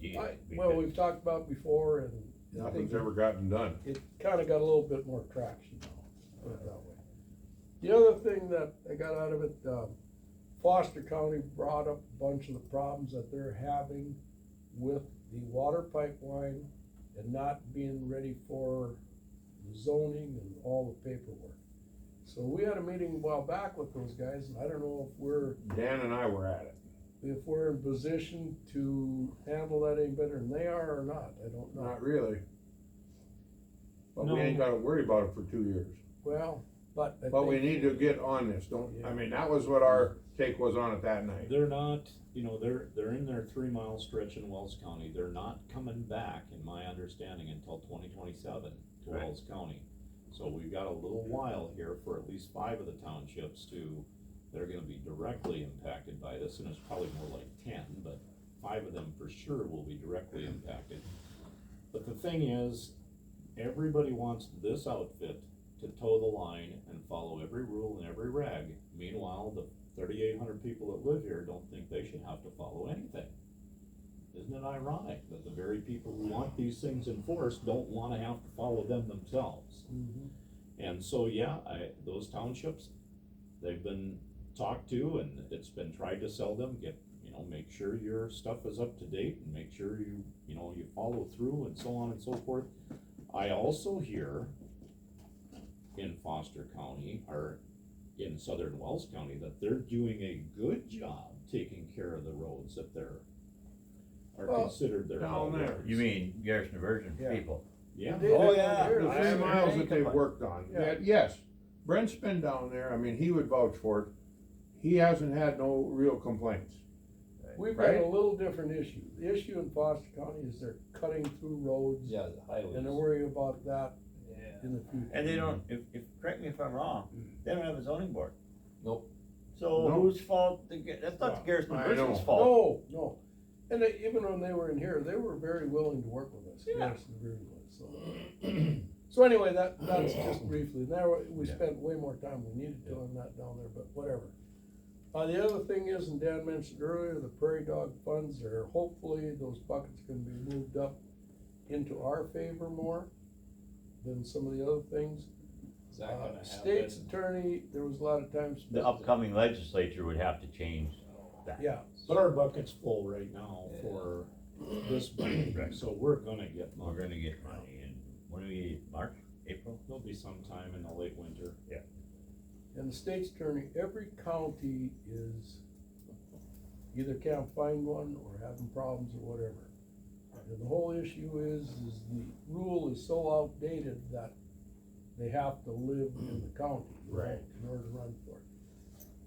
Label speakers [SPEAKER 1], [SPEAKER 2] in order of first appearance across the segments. [SPEAKER 1] be.
[SPEAKER 2] I- Well, we've talked about before and I think
[SPEAKER 3] Nothing's ever gotten done.
[SPEAKER 2] it kinda got a little bit more traction now, put it that way. The other thing that I got out of it, um, Foster County brought up a bunch of the problems that they're having with the water pipeline and not being ready for zoning and all the paperwork. So we had a meeting a while back with those guys, and I don't know if we're,
[SPEAKER 3] Dan and I were at it.
[SPEAKER 2] if we're in position to handle that any better than they are or not, I don't know.
[SPEAKER 3] Not really. But we ain't gotta worry about it for two years.
[SPEAKER 2] Well, but I
[SPEAKER 3] But we
[SPEAKER 2] think-
[SPEAKER 3] need to get on this, don't, I mean, that was what our take was on it that night.
[SPEAKER 1] They're not, you know, they're, they're in their three mile stretch in Wells County, they're not coming back, in my understanding, until twenty twenty-seven to
[SPEAKER 3] Right.
[SPEAKER 1] Wells County. So we've got a little while here for at least five of the townships to, they're gonna be directly impacted by this, and it's probably more like ten, but five of them for sure will be directly impacted. But the thing is, everybody wants this outfit to toe the line and follow every rule and every reg. Meanwhile, the thirty-eight hundred people that live here don't think they should have to follow anything. Isn't it ironic that the very people who want these things enforced don't wanna have to follow them themselves?
[SPEAKER 2] Mhm.
[SPEAKER 1] And so, yeah, I, those townships, they've been talked to and it's been tried to sell them, get, you know, make sure your stuff is up to date and make sure you, you know, you follow through and so on and so forth. I also hear in Foster County or in Southern Wells County that they're doing a good job taking care of the roads that they're are
[SPEAKER 2] Well,
[SPEAKER 1] considered their.
[SPEAKER 3] down
[SPEAKER 1] home
[SPEAKER 3] there.
[SPEAKER 1] roads.
[SPEAKER 4] You mean Garrison Virgin
[SPEAKER 3] Yeah.
[SPEAKER 4] people?
[SPEAKER 1] Yeah.
[SPEAKER 2] They did
[SPEAKER 3] Oh,
[SPEAKER 2] it
[SPEAKER 3] yeah,
[SPEAKER 2] there.
[SPEAKER 3] the
[SPEAKER 4] I
[SPEAKER 3] three
[SPEAKER 4] haven't heard
[SPEAKER 3] miles that
[SPEAKER 4] anything
[SPEAKER 3] they've
[SPEAKER 4] about it.
[SPEAKER 3] worked on,
[SPEAKER 2] Yeah.
[SPEAKER 3] Yeah, yes, Brent's been down there, I mean, he would vouch for it, he hasn't had no real complaints.
[SPEAKER 2] We've got a
[SPEAKER 3] Right?
[SPEAKER 2] little different issue. The issue in Foster County is they're cutting through roads.
[SPEAKER 5] Yeah, the
[SPEAKER 2] And they're
[SPEAKER 5] highways.
[SPEAKER 2] worried about that
[SPEAKER 4] Yeah.
[SPEAKER 2] in the future.
[SPEAKER 4] And they don't, if, if, correct me if I'm wrong, they don't have a zoning board.
[SPEAKER 5] Nope.
[SPEAKER 4] So
[SPEAKER 3] No.
[SPEAKER 4] whose fault, the Ga- that's not the Garrison
[SPEAKER 3] I
[SPEAKER 4] Virgin's
[SPEAKER 3] know.
[SPEAKER 4] fault.
[SPEAKER 2] No, no. And they, even when they were in here, they were very willing to work with us.
[SPEAKER 4] Yeah.
[SPEAKER 2] Yes, they really was, so. So anyway, that, that's just briefly. Now, we
[SPEAKER 4] Yeah.
[SPEAKER 2] spent way more time we needed to on that down there, but whatever. Uh, the other thing is, and Dan mentioned earlier, the prairie dog funds are, hopefully those buckets can be moved up into our favor more than some of the other things.
[SPEAKER 5] Is that gonna
[SPEAKER 2] Uh,
[SPEAKER 5] happen?
[SPEAKER 2] State's attorney, there was a lot of times. spent-
[SPEAKER 4] The upcoming legislature would have to change that.
[SPEAKER 2] Yeah,
[SPEAKER 1] But our bucket's full right now for this budget, so we're gonna get
[SPEAKER 4] We're
[SPEAKER 1] money.
[SPEAKER 4] gonna get money in, when do we, March, April?
[SPEAKER 1] There'll be some time in the late winter.
[SPEAKER 2] and the state's attorney, every county is either can't find one or having problems or whatever. And the whole issue is, is the rule is so outdated that they have to live in the county. you know,
[SPEAKER 3] Right.
[SPEAKER 2] In order to run for it.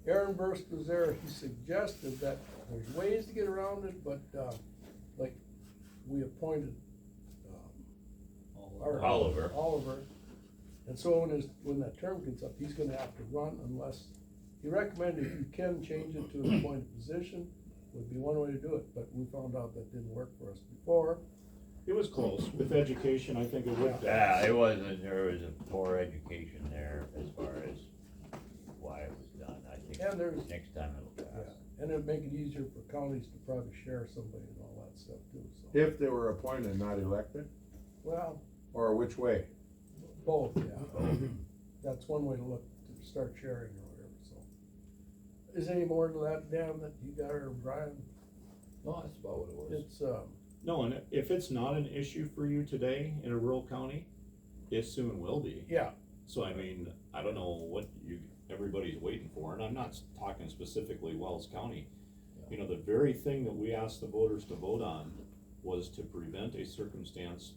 [SPEAKER 2] Aaron Burst was there, he suggested that there's ways to get around it, but, uh, like, we appointed, um, or-
[SPEAKER 4] Oliver.
[SPEAKER 2] Oliver. And so when his, when that term gets up, he's gonna have to run unless, he recommended if you can change it to an appointed position, would be one way to do it, but we found out that didn't work for us before.
[SPEAKER 1] It was close. With education, I think it would.
[SPEAKER 4] Yeah, it wasn't, there was a poor education there as far as why it was done, I
[SPEAKER 2] And
[SPEAKER 4] think
[SPEAKER 2] there's,
[SPEAKER 4] next time it'll
[SPEAKER 2] yeah,
[SPEAKER 4] pass.
[SPEAKER 2] and it'd make it easier for counties to probably share somebody and all that stuff too, so.
[SPEAKER 3] If they were appointed, not elected,
[SPEAKER 2] Well,
[SPEAKER 3] or which way,
[SPEAKER 2] both, yeah.
[SPEAKER 3] Mm-hmm.
[SPEAKER 2] That's one way to look, to start sharing or whatever, so. Is there any more to that, Dan, that you got or Brian?
[SPEAKER 5] No, that's about what it was.
[SPEAKER 2] It's, um,
[SPEAKER 1] No, and if it's not an issue for you today in a rural county, it soon will be.
[SPEAKER 2] yeah,
[SPEAKER 1] So I mean, I don't know what you, everybody's waiting for, and I'm not s- talking specifically Wells County. You know, the very thing that we asked the voters to vote on was to prevent a circumstance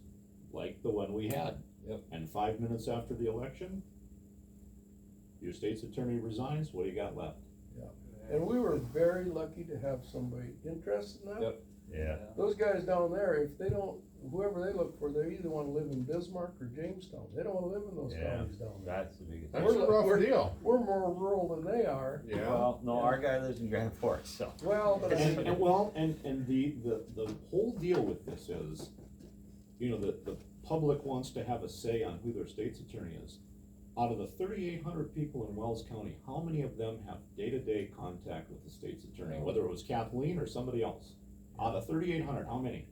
[SPEAKER 1] like the one we had.
[SPEAKER 5] Yep.
[SPEAKER 1] And five minutes after the election, your state's attorney resigns, what do you got left?
[SPEAKER 2] And we were very lucky to have somebody interested in that.
[SPEAKER 5] Yep.
[SPEAKER 4] Yeah,
[SPEAKER 2] Those guys down there, if they don't, whoever they look for, they either wanna live in Bismarck or Jamestown, they don't wanna live in those
[SPEAKER 4] Yeah.
[SPEAKER 2] counties down there.
[SPEAKER 4] that's the biggest.
[SPEAKER 3] that's a rough deal,
[SPEAKER 2] We're more rural than they are,
[SPEAKER 3] yeah.
[SPEAKER 4] Well, no, our guy lives in Grand Forks, so.
[SPEAKER 2] well, but
[SPEAKER 1] And,
[SPEAKER 2] I,
[SPEAKER 1] and well, and, and the, the, the whole deal with this is, you know, the, the public wants to have a say on who their state's attorney is. Out of the thirty-eight hundred people in Wells County, how many of them have day-to-day contact with the state's attorney, whether it was Kathleen or somebody else? Out of thirty-eight hundred, how many?